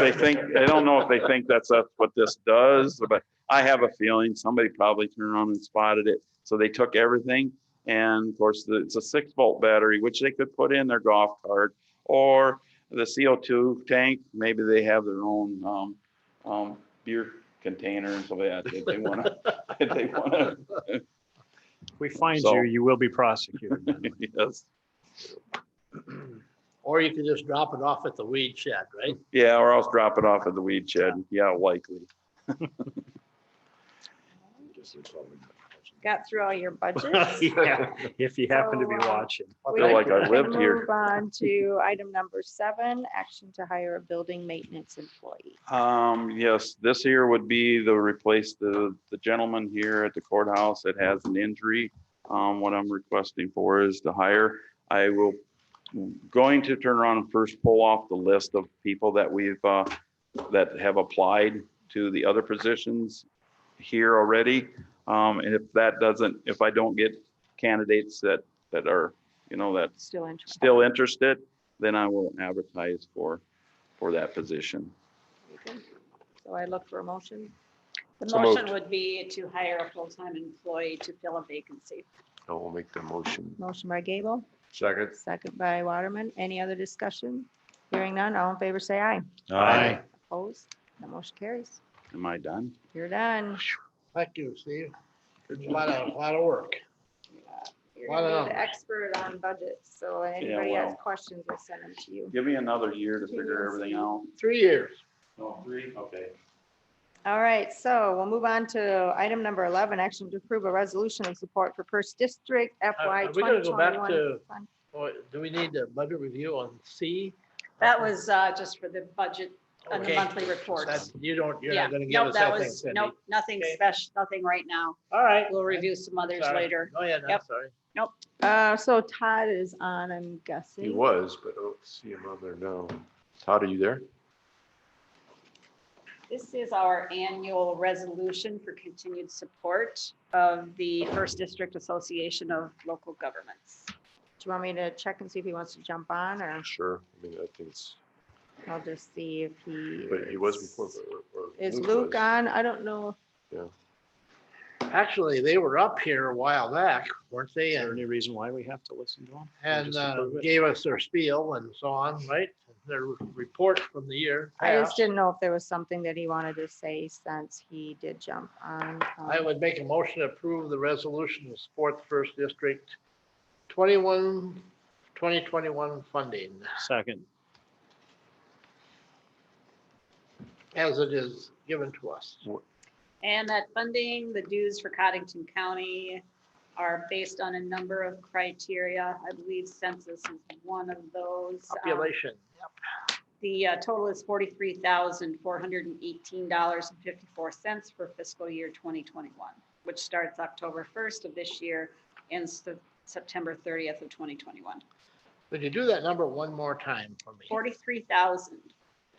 They think, I don't know if they think that's uh, what this does, but I have a feeling somebody probably turned on and spotted it. So they took everything. And of course, the- it's a six volt battery, which they could put in their golf cart or the CO2 tank. Maybe they have their own um, um, beer container and so that if they want to, if they want to. We find So- you, you will be prosecuted. Madeline. Yes. Or you could just drop it off at the weed shed, right? Yeah, or else drop it off at the weed shed. Yeah, likely. got through all your budgets. Yeah, If you happen to be So, uh, watching. I We feel like I can lived here. Move on to item number seven, action to hire a building maintenance employee. Um, yes, this here would be the replace the, the gentleman here at the courthouse that has an injury. Um, what I'm requesting for is to hire, I will, going to turn around and first pull off the list of people that we've, uh, that have applied to the other positions here already. Um, and if that doesn't, if I don't get candidates that, that are, you know, that Still interested? still interested, then I will advertise for, for that position. So I look for a motion. The motion would be to hire a full-time employee to fill a vacancy. I will make the motion. Motion by Gable, Second. second by Waterman. Any other discussion? Hearing none, all in favor, say aye. Aye. Opposed? The motion carries. Am I done? You're done. Thank you, Steve. It's A lot of, a lot of work. You're gonna Wow. be the expert on budgets, so if Yeah, anybody has well. questions, we'll send them to you. Give me another year to figure everything out. Three years. Oh, three, okay. All right, so we'll move on to item number 11, action to approve a resolution of support for First District FY Uh, are we gonna go back 2021. to- fund. Boy, Oh, Do we need a budget review on C? That was uh, just for the budget and the Okay. monthly reports. That's- You don't, you're Yeah, not gonna give no, us that that thing, was, Cindy. nope, nothing Okay. special, nothing right now. All right. We'll review some others Sorry. later. Go ahead, I'm Yep. sorry. Uh, So Todd is on, I'm guessing. He was, but I don't see him on there now. Todd, are you there? This is our annual resolution for continued support of the First District Association of Local Governments. Do you want me to check and see if he wants to jump on, or Sure. I mean, I think it's, I'll just see if he. but he was before. is- but- or Is Luke was. on? I don't know. Actually, they were up here a while back, weren't they? Is there And, any reason why we have to listen to him? and Just uh, approve it? gave us their spiel and so on, right? Their report from the year. I just past. didn't know if there was something that he wanted to say since he did jump on. um, I would make a motion to approve the resolution to support the First District 21, 2021 funding Second. as it is given to us. And that funding, the dues for Cottington County are based on a number of criteria. I believe census is one of those. Um, Population. The uh, total is forty-three thousand, four hundred and eighteen dollars and fifty-four cents for fiscal year twenty twenty-one, which starts October first of this year ends the September thirtieth of twenty twenty-one. Would you do that number one more time for me? Forty-three thousand,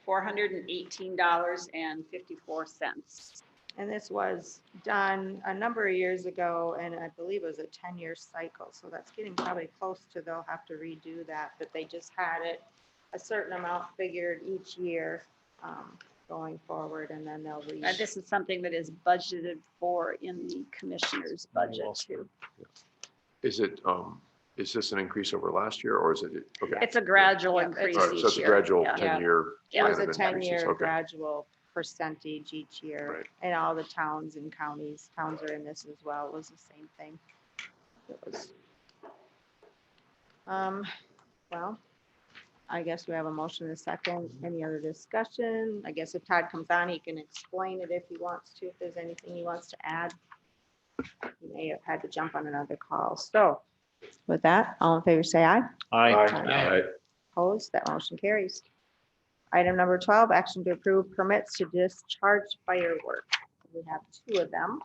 four hundred and eighteen dollars and fifty-four cents. And this was done a number of years ago, and I believe it was a ten-year cycle, so that's getting probably close to they'll have to redo that, but they just had it a certain amount figured each year um, going forward, and then they'll re. And this is something that is budgeted for in the commissioner's budget Well, too. Is it, um, is this an increase over last year or is it? okay. It's a gradual Yeah, it's- increase All right, so each it's a year. gradual Yeah. Yeah. ten-year. It was a plan of increases. ten-year Okay. gradual percentage each year, Right. and all the towns and counties, towns are in this as well, it was the same thing. It was. Um, well, I guess we have a motion in a second, any other discussion? I guess if Todd comes on, he can explain it if he wants to, if there's anything he wants to add. He may have had to jump on another call, so with that, all in favor, say aye. Aye. Aye. Opposed, that motion carries. Item number 12, action to approve permits to discharge fireworks. We have two of them.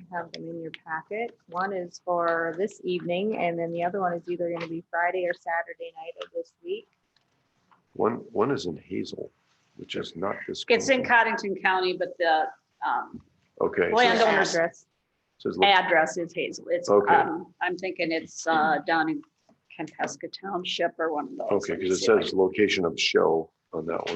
You Have them in your packet. One is for this evening, and then the other one is either going to be Friday or Saturday night of this week. One, one is in Hazel, which is not this. It's in company. Cottington County, but the um, Okay. so it The Landowners. address, says look- address is Hazel. It's, Okay. um, I'm thinking it's uh, down in Kampasca Township or one of those. Okay, Let me because it see if I says location of show on that one?